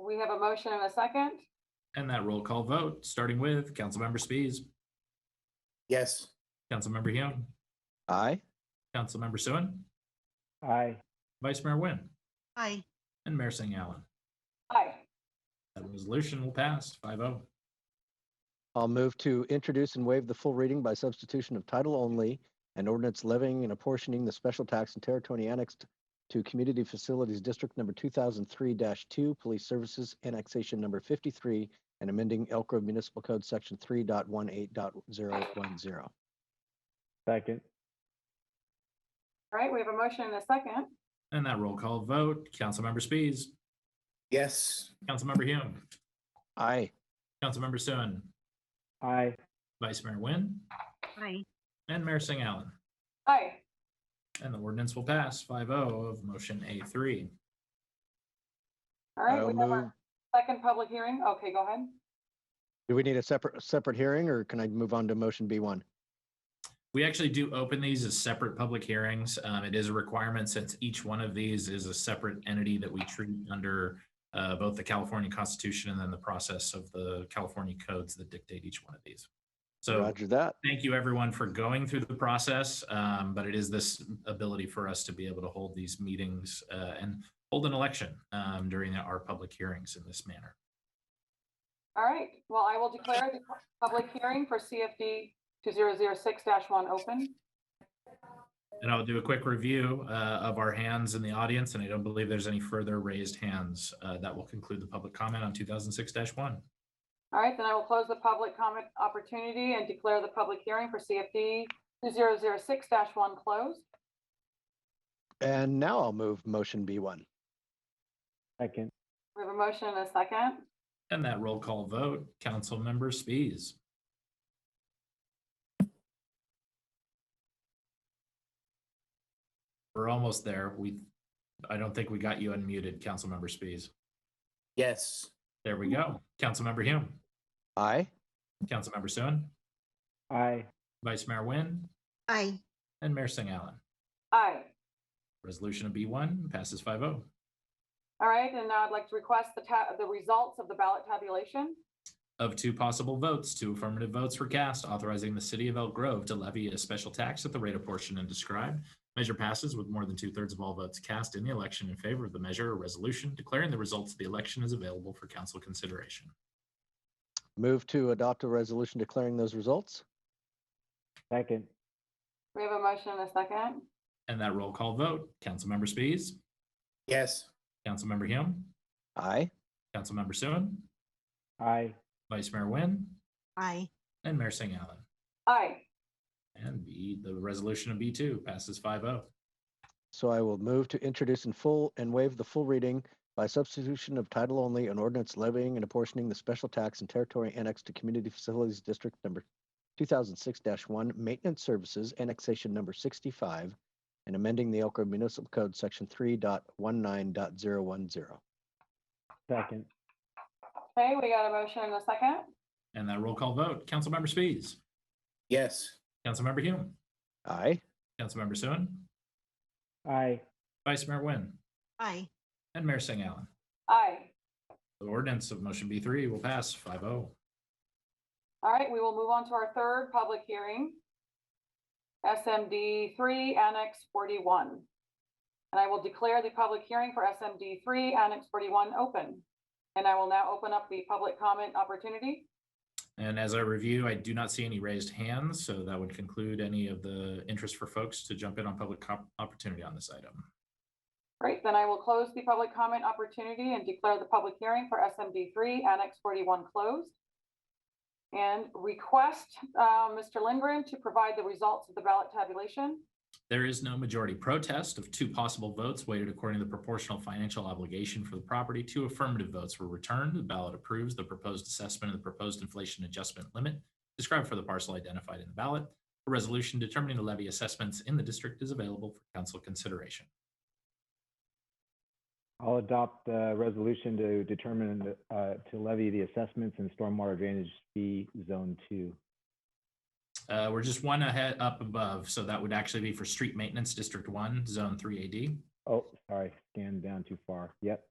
We have a motion and a second. And that roll call vote, starting with Councilmember Spies, Yes. Councilmember Hume, Aye. Councilmember Suen, Aye. Vice Mayor Nguyen, Aye. and Mayor Singh Allen. Aye. That resolution will pass oh. 5-0. I'll move to introduce and waive the full reading by substitution of title only and ordinance levying and apportioning the special tax and territory annexed to Community Facilities District Number two thousand three two, Police Services Annexation Number fifty-three, and amending Elk Grove Municipal Code Section 3.18.010. Second. All right, we have a motion and a second. And that roll call vote, Councilmember Spies, Yes. Councilmember Hume, Aye. Councilmember Suen, Aye. Vice Mayor Nguyen, Aye. and Mayor Singh Allen. Aye. And the ordinance will pass 5-0 of motion A three. All right, I'll we have move. our second public hearing. Okay, go ahead. Do we need a separate, separate hearing or can I move on to motion B one? We actually do open these as separate public hearings. Um, it is a requirement since each one of these is a separate entity that we treat under uh, both the California Constitution and then the process of the California codes that dictate each one of these. So Roger that. thank you everyone for going through the process. Um, but it is this ability for us to be able to hold these meetings uh, and hold an election um, during our public hearings in this manner. All right, well, I will declare the public hearing for CFD two zero zero six one open. And I'll do a quick review uh, of our hands in the audience, and I don't believe there's any further raised hands. Uh, That will conclude the public comment on 2006-1. All right, then I will close the public comment opportunity and declare the public hearing for CFD two zero zero six one closed. And now I'll move motion B one. Second. We have a motion and a second. And that roll call vote, Councilmember Spies, We're almost there. We, I don't think we got you unmuted, Councilmember Spies. Yes. There we go. Councilmember Hume, Aye. Councilmember Suen, Aye. Vice Mayor Nguyen, Aye. and Mayor Singh Allen. Aye. Resolution of B1 passes oh. 5-0. All right, and now I'd like to request the ta- the results of the ballot tabulation. Of two possible votes, two affirmative votes were cast authorizing the city of Elk Grove to levy a special tax at the rate apportioned and described. Measure passes with more than two thirds of all votes cast in the election in favor of the measure or resolution declaring the results of the election is available for council consideration. Move to adopt a resolution declaring those results. Second. We have a motion and a second. And that roll call vote, Councilmember Spies, Yes. Councilmember Hume, Aye. Councilmember Suen, Aye. Vice Mayor Nguyen, Aye. and Mayor Singh Allen. Aye. And B, the resolution of B2 passes oh. 5-0. So I will move to introduce in full and waive the full reading by substitution of title only an ordinance levying and apportioning the special tax and territory annexed to Community Facilities District Number two thousand six one, Maintenance Services Annexation Number sixty-five, and amending the Elk Grove Municipal Code Section 3.19.010. Second. Okay, we got a motion and a second. And that roll call vote, Councilmember Spies, Yes. Councilmember Hume, Aye. Councilmember Suen, Aye. Vice Mayor Nguyen, Aye. And Mayor Singh Allen. Aye. The ordinance of motion B three will pass oh. 5-0. All right, we will move on to our third public hearing. SMD three Annex forty-one. And I will declare the public hearing for SMD three Annex forty-one open. And I will now open up the public comment opportunity. And as I review, I do not see any raised hands, so that would conclude any of the interest for folks to jump in on public cop- opportunity on this item. Great, then I will close the public comment opportunity and declare the public hearing for SMD three Annex forty-one closed. And request, uh, Mr. Lindgren to provide the results of the ballot tabulation. There is no majority protest of two possible votes weighted according to the proportional financial obligation for the property. Two affirmative votes were returned. The ballot approves the proposed assessment and the proposed inflation adjustment limit described for the parcel identified in the ballot. A resolution determining the levy assessments in the district is available for council consideration. I'll adopt the resolution to determine, the, uh, to levy the assessments in stormwater drainage fee zone two. Uh, we're just one ahead up above, so that would actually be for street maintenance district one, zone three AD. Oh, sorry, scanned down too far. Yep,